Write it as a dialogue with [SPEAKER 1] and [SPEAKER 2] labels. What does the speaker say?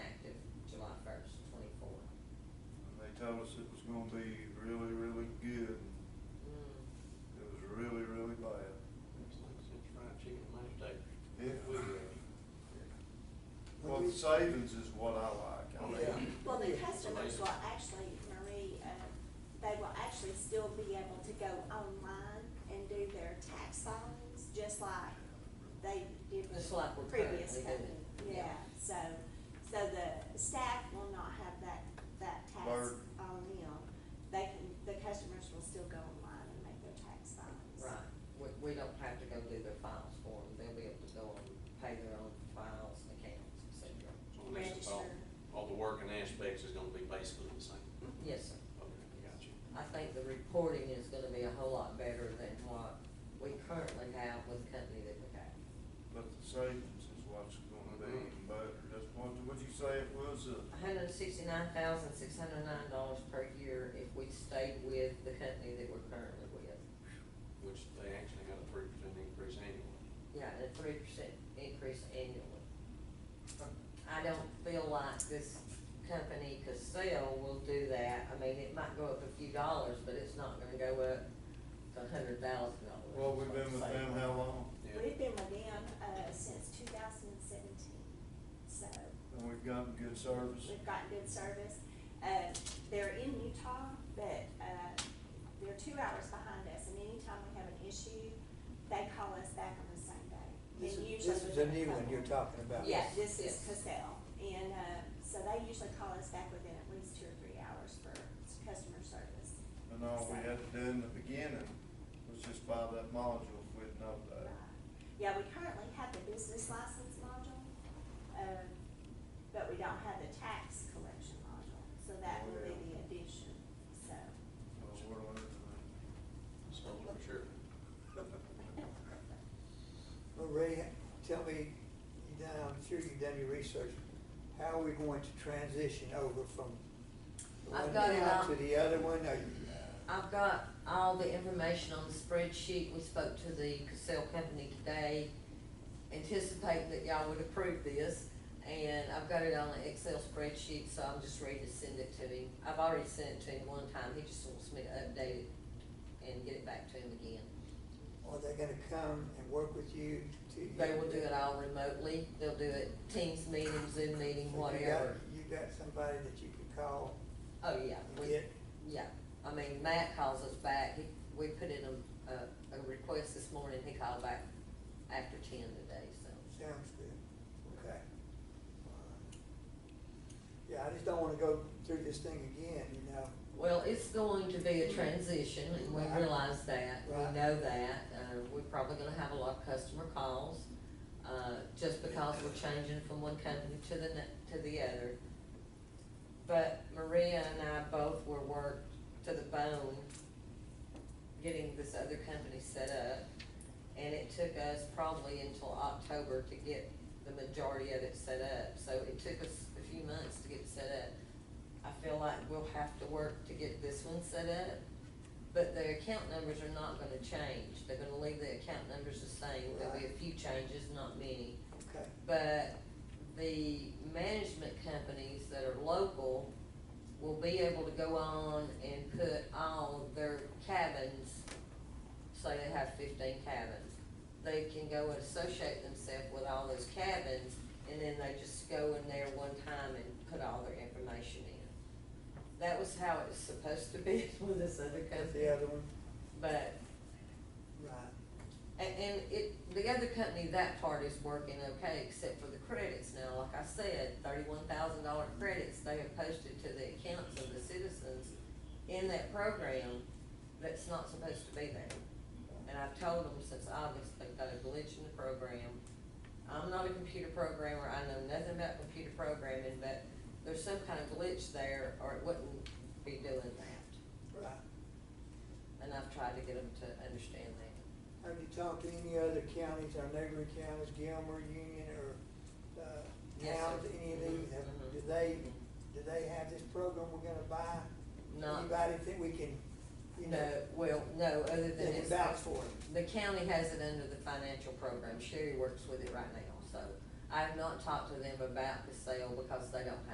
[SPEAKER 1] gonna be really, really good.
[SPEAKER 2] Mm.
[SPEAKER 1] It was really, really bad.
[SPEAKER 2] It's like six fried chicken and mashed potatoes.
[SPEAKER 1] Yeah.
[SPEAKER 2] We, uh,
[SPEAKER 1] Well, the savings is what I like. I
[SPEAKER 2] Yeah.
[SPEAKER 1] mean,
[SPEAKER 3] Well, the customers will actually, Marie, uh, they will actually still be able to go online and do their tax filings, just like they did with
[SPEAKER 4] Just like we're
[SPEAKER 3] previous
[SPEAKER 4] currently
[SPEAKER 3] company.
[SPEAKER 4] doing,
[SPEAKER 3] Yeah,
[SPEAKER 4] yeah.
[SPEAKER 3] so, so the staff will not have that, that tax
[SPEAKER 1] Burden.
[SPEAKER 3] on them. They can, the customers will still go online and make their tax filings.
[SPEAKER 4] Right, we, we don't have to go do their files for them, they'll be able to go and pay their own files and accounts, et cetera.
[SPEAKER 2] so at least it's all,
[SPEAKER 3] Register.
[SPEAKER 2] all the work and aspects is gonna be basically the same.
[SPEAKER 4] Yes, sir.
[SPEAKER 2] Okay, got you.
[SPEAKER 4] I think the reporting is gonna be a whole lot better than what we currently have with the company that we have.
[SPEAKER 1] But the savings is what's gonna be even better. That's what, what'd you say it was, uh,
[SPEAKER 4] hundred and sixty-nine thousand, six hundred and nine dollars per year if we stayed with the company that we're currently with.
[SPEAKER 2] Which they actually had a three percent increase annually.
[SPEAKER 4] Yeah, and a three percent increase annually. I don't feel like this company Castile will do that. I mean, it might go up a few dollars, but it's not gonna go up to a hundred thousand dollars.
[SPEAKER 1] well, we've been with them how long?
[SPEAKER 2] Yeah.
[SPEAKER 3] We've been with them, uh, since two thousand and seventeen, so.
[SPEAKER 1] And we've gotten good service.
[SPEAKER 3] We've gotten good service. Uh, they're in Utah, but, uh, they're two hours behind us, and anytime we have an issue, they call us back on the same day.
[SPEAKER 5] This
[SPEAKER 3] And
[SPEAKER 5] is,
[SPEAKER 3] usually
[SPEAKER 5] this is a
[SPEAKER 3] within
[SPEAKER 5] new one
[SPEAKER 3] couple-
[SPEAKER 5] you're talking about.
[SPEAKER 3] Yeah, this is
[SPEAKER 4] Yes.
[SPEAKER 3] Cassell, and, uh, so they usually call us back within at least two or three hours for s- customer service.
[SPEAKER 1] And all we had to do in the beginning was just buy that module if we'd known
[SPEAKER 3] Right.
[SPEAKER 1] that.
[SPEAKER 3] Yeah, we currently have the business license module, um, but we don't have the tax collection module, so that will be the addition, so.
[SPEAKER 1] Well, we're learning.
[SPEAKER 2] So for sure.
[SPEAKER 5] Well, Ray, tell me, you done, I'm sure you've done your research, how are we going to transition over from the
[SPEAKER 4] I've
[SPEAKER 5] one
[SPEAKER 4] got it
[SPEAKER 5] now
[SPEAKER 4] all.
[SPEAKER 5] to the other one? Are you-
[SPEAKER 4] I've got all the information on the spreadsheet. We spoke to the Cassell company today. Anticipate that y'all would approve this, and I've got it on an Excel spreadsheet, so I'm just ready to send it to him. I've already sent it to him one time. He just wants me to update it and get it back to him again.
[SPEAKER 5] uh, Are they gonna come and work with you to?
[SPEAKER 4] They will do it all remotely. They'll do it Teams meeting, Zoom meeting,
[SPEAKER 5] So you got-
[SPEAKER 4] whatever.
[SPEAKER 5] You got somebody that you can call
[SPEAKER 4] Oh, yeah.
[SPEAKER 5] and
[SPEAKER 4] we-
[SPEAKER 5] get,
[SPEAKER 4] Yeah, I mean, Matt calls us back, he, we put in a, a, a request this morning, he called back after ten today, so.
[SPEAKER 5] sounds good, okay. Yeah, I just don't wanna go through this thing again, you know,
[SPEAKER 4] Well, it's going to be a transition, and we
[SPEAKER 5] Right.
[SPEAKER 4] realize that, we
[SPEAKER 5] Right.
[SPEAKER 4] know that, uh, we're probably gonna have a lot of customer calls, uh, just because we're changing from one company to the ne- to the other. But Maria and I both were worked to the bone getting this other company set up. And it took us probably until October to get the majority of it set up. So it took us a few months to get it set up. I feel like we'll have to work to get this one set up. But the account numbers are not gonna change. They're gonna leave the account numbers the same. There'll be a
[SPEAKER 5] Right.
[SPEAKER 4] few changes, not many.
[SPEAKER 5] okay.
[SPEAKER 4] But the management companies that are local will be able to go on and put all of their cabins, say they have fifteen cabins. They can go and associate themselves with all those cabins, and then they just go in there one time and put all their information in. That was how it's supposed to be with this other
[SPEAKER 5] That's the
[SPEAKER 4] company,
[SPEAKER 5] other one,
[SPEAKER 4] but
[SPEAKER 5] right.
[SPEAKER 4] and, and it, the other company, that part is working okay, except for the credits now, like I said, thirty-one thousand dollar credits they have posted to the accounts of the citizens in that program that's not supposed to be there. And I've told them since August, they've got a glitch in the program. I'm not a computer programmer, I know nothing about computer programming, but there's some kind of glitch there, or it wouldn't be doing that.
[SPEAKER 5] Right.
[SPEAKER 4] And I've tried to get them to understand that.
[SPEAKER 5] Have you talked to any other counties, our neighboring counties, Gilmer, Union, or, uh,
[SPEAKER 4] Yes, sir.
[SPEAKER 5] towns, any of these? Have-
[SPEAKER 4] Mhm.
[SPEAKER 5] Do they, do they have this program we're gonna buy?
[SPEAKER 4] Not-
[SPEAKER 5] Anybody think we can, you
[SPEAKER 4] No,
[SPEAKER 5] know,
[SPEAKER 4] well, no, other than
[SPEAKER 5] that can
[SPEAKER 4] it's,
[SPEAKER 5] vouch for it?
[SPEAKER 4] the county has it under the financial program, Sherry works with it right now, so. I've not talked to them about the sale because they don't have